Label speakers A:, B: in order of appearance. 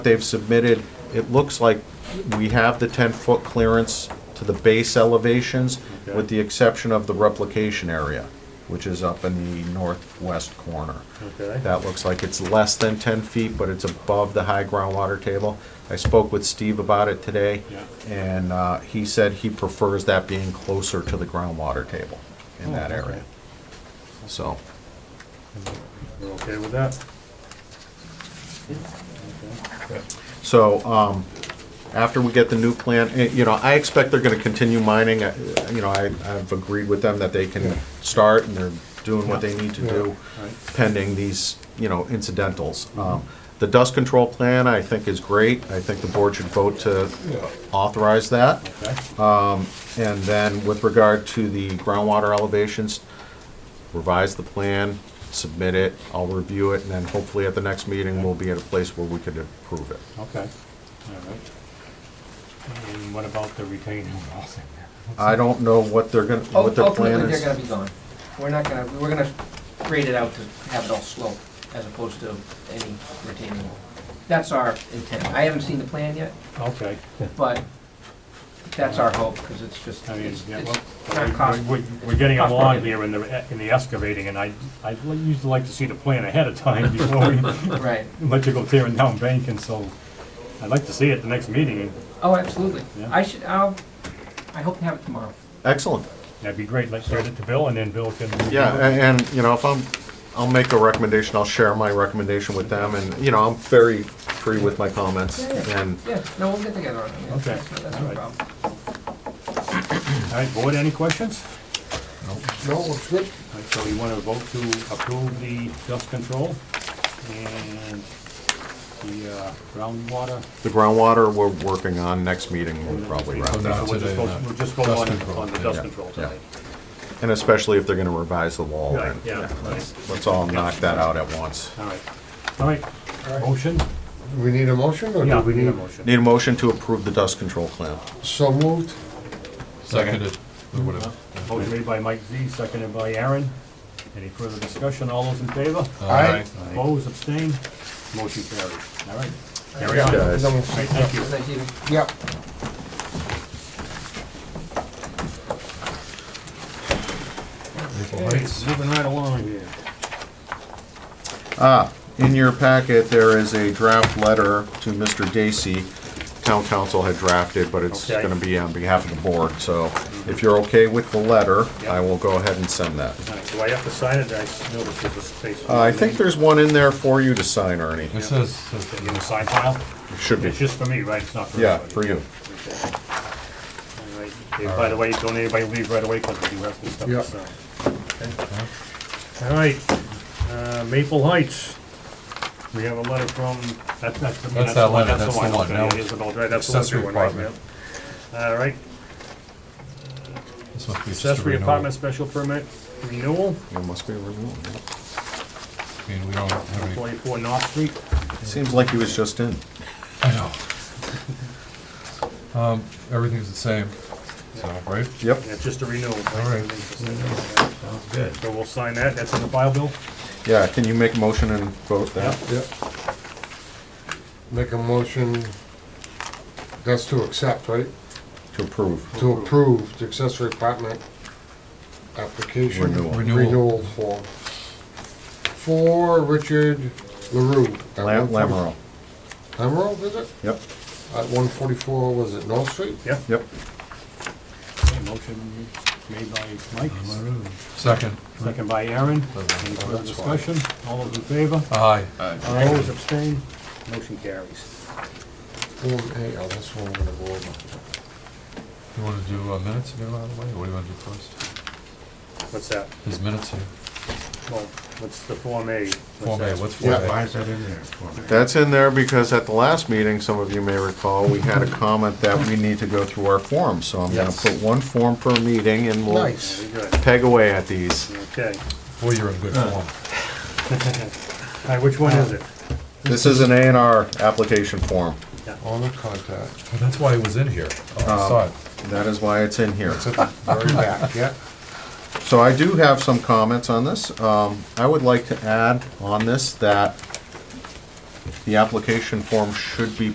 A: they've submitted, it looks like we have the 10-foot clearance to the base elevations, with the exception of the replication area, which is up in the northwest corner.
B: Okay,
A: That looks like it's less than 10 feet, but it's above the high groundwater table. I spoke with Steve about it today,
B: Yeah.
A: and uh, he said he prefers that being closer to the groundwater table in that
B: Oh, okay.
A: area. So,
B: we're okay with that?
A: So, um, after we get the new plan, eh, you know, I expect they're gonna continue mining, eh, you know, I, I've agreed with them that they can start and they're doing what they need to do
B: Yeah, right.
A: pending these, you know, incidentals. Um, The dust control plan, I think, is great, I think the board should vote to authorize that.
B: Okay,
A: And then with regard to the groundwater elevations, revise the plan, submit it, I'll review it, and then hopefully at the next meeting, we'll be at a place where we could approve it.
B: okay, all right. And what about the retaining walls in there?
A: I don't know what they're gonna, what their plan
C: Ultimately,
A: is.
C: they're gonna be gone. We're not gonna, we're gonna grade it out to have it all slope as opposed to any retaining wall. That's our intent. I haven't seen the plan yet,
B: Okay,
C: but that's our hope, because it's just,
B: I mean,
C: it's,
B: yeah,
C: it's
B: well,
C: not cost.
B: we- we- we're getting
C: cost
B: along
C: prohibitive.
B: here in the, in the excavating, and I, I'd li- usually like to see the plan ahead of time before we
C: Right.
B: let you go tearing down bank, and so I'd like to see it the next meeting, and
C: Oh, absolutely.
B: Yeah.
C: I should, I'll, I hope to have it tomorrow.
A: Excellent.
B: that'd be great, let's send it to Bill, and then Bill can.
A: Yeah, a- and, you know, if I'm, I'll make a recommendation, I'll share my recommendation with them, and, you know, I'm very free with my comments,
C: Yeah, yeah.
A: and
C: Yeah, no, we'll get together on it. man.
B: Okay,
C: That's no- That's
B: all
C: no
B: right.
C: problem.
B: All right, board, any questions?
D: No, it's good.
B: All right, So you want to vote to approve the dust control and the uh, groundwater?
A: the groundwater we're working on, next meeting, we'll probably wrap
B: So
A: that up.
B: We'll just
D: today,
B: vote-
D: not
B: we'll just vote
D: dust
B: on,
D: control.
B: on the
A: Yeah,
B: dust control
A: yeah.
B: tonight.
A: And especially if they're gonna revise the wall,
B: Right,
A: and
B: yeah, right.
A: let's all knock that out at once.
B: All right, all right, motion?
D: We need a motion or do
B: Yeah,
D: we need?
B: motion.
A: Need a motion to approve the dust control plan.
D: So moved.
E: Seconded, or whatever.
B: Motion made by Mike Z, seconded by Aaron. Any further discussion? All those in favor?
D: Aye.
B: Opposed, abstained? Motion carried. All right, carry on. All
D: Yeah,
B: right,
A: Guys.
D: number-
B: thank you.
C: Thank you.
D: Yeah,
B: Okay, Moving right along here.
A: In your packet, there is a draft letter to Mr. Dacey. Town council had drafted, but it's
B: Okay.
A: gonna be on behalf of the board, so if you're okay with the letter,
B: Yeah.
A: I will go ahead and send that.
B: All right, Do I have to sign it? I s- noticed there's a space.
A: Uh, I think there's one in there for you to sign, Ernie.
E: It says, says-
B: In the side pile?
A: Should be.
B: It's just for me, right? It's not for
A: Yeah,
B: everybody?
A: for you.
B: All right. Hey, By the way, don't anybody leave right away, because we do have some stuff
D: Yeah.
B: to sign. Okay. All right, uh, Maple Heights. We have a letter from, that's, that's.
E: That's that letter, that's the
B: one.
E: one,
B: Okay,
E: no.
B: it is an old- right, That's the one,
E: Accessory
B: new one, right,
E: apartment.
B: yeah. All right,
E: this must be just a
B: accessory
E: renewal.
B: apartment special permit renewal,
A: There must be a renewal.
E: I mean, we don't have any,
B: twenty-four North Street.
A: Seems like he was just in.
E: I know. Um, everything's the same, so, right?
A: Yep.
B: Yeah, It's just a renewal.
E: All right.
B: Sounds good. So we'll sign that. That's in the file, Bill?
A: Yeah, can you make a motion and vote that?
D: yeah. Make a motion, that's to accept, right?
A: To approve.
D: To approve the accessory apartment application.
A: Renewal.
E: Renewal.
D: Renewal form. For Richard LaRue. at
A: Lam-
D: 140
A: Lamoureux.
D: Lamoureux, is it?
A: Yep,
D: At one forty-four, was it North Street?
B: Yeah.
A: yep.
B: Okay, Motion made by Mike,
E: Second,
B: second by Aaron. Any further discussion? All those in favor?
E: aye.
B: Uh, Opposed, abstained? Motion carries.
D: Form A, oh, that's one we're gonna go over.
E: You wanna do uh, minutes here, by the way, or what do you wanna do first?
B: What's that?
E: There's minutes here.
B: Well, what's the Form A? What's
E: Form A,
B: that?
E: what's Form
D: Yeah.
E: A?
D: is that in there?
A: That's in there because at the last meeting, some of you may recall, we had a comment that we need to go through our forms. So I'm gonna
E: Yes.
A: put one form per meeting and we'll
D: Nice.
B: Very good.
A: peg away at these.
B: Okay.
E: Boy, you're in good
B: Uh.
E: form.
B: All right, which one is it?
A: This is an A and R application form.
D: On the contact,
E: Well, That's why it was in here. Oh, I
B: Uh,
E: saw it.
A: That is why it's in here.
D: it's at the very back, yeah.
A: So I do have some comments on this. Um, I would like to add on this that The application form should be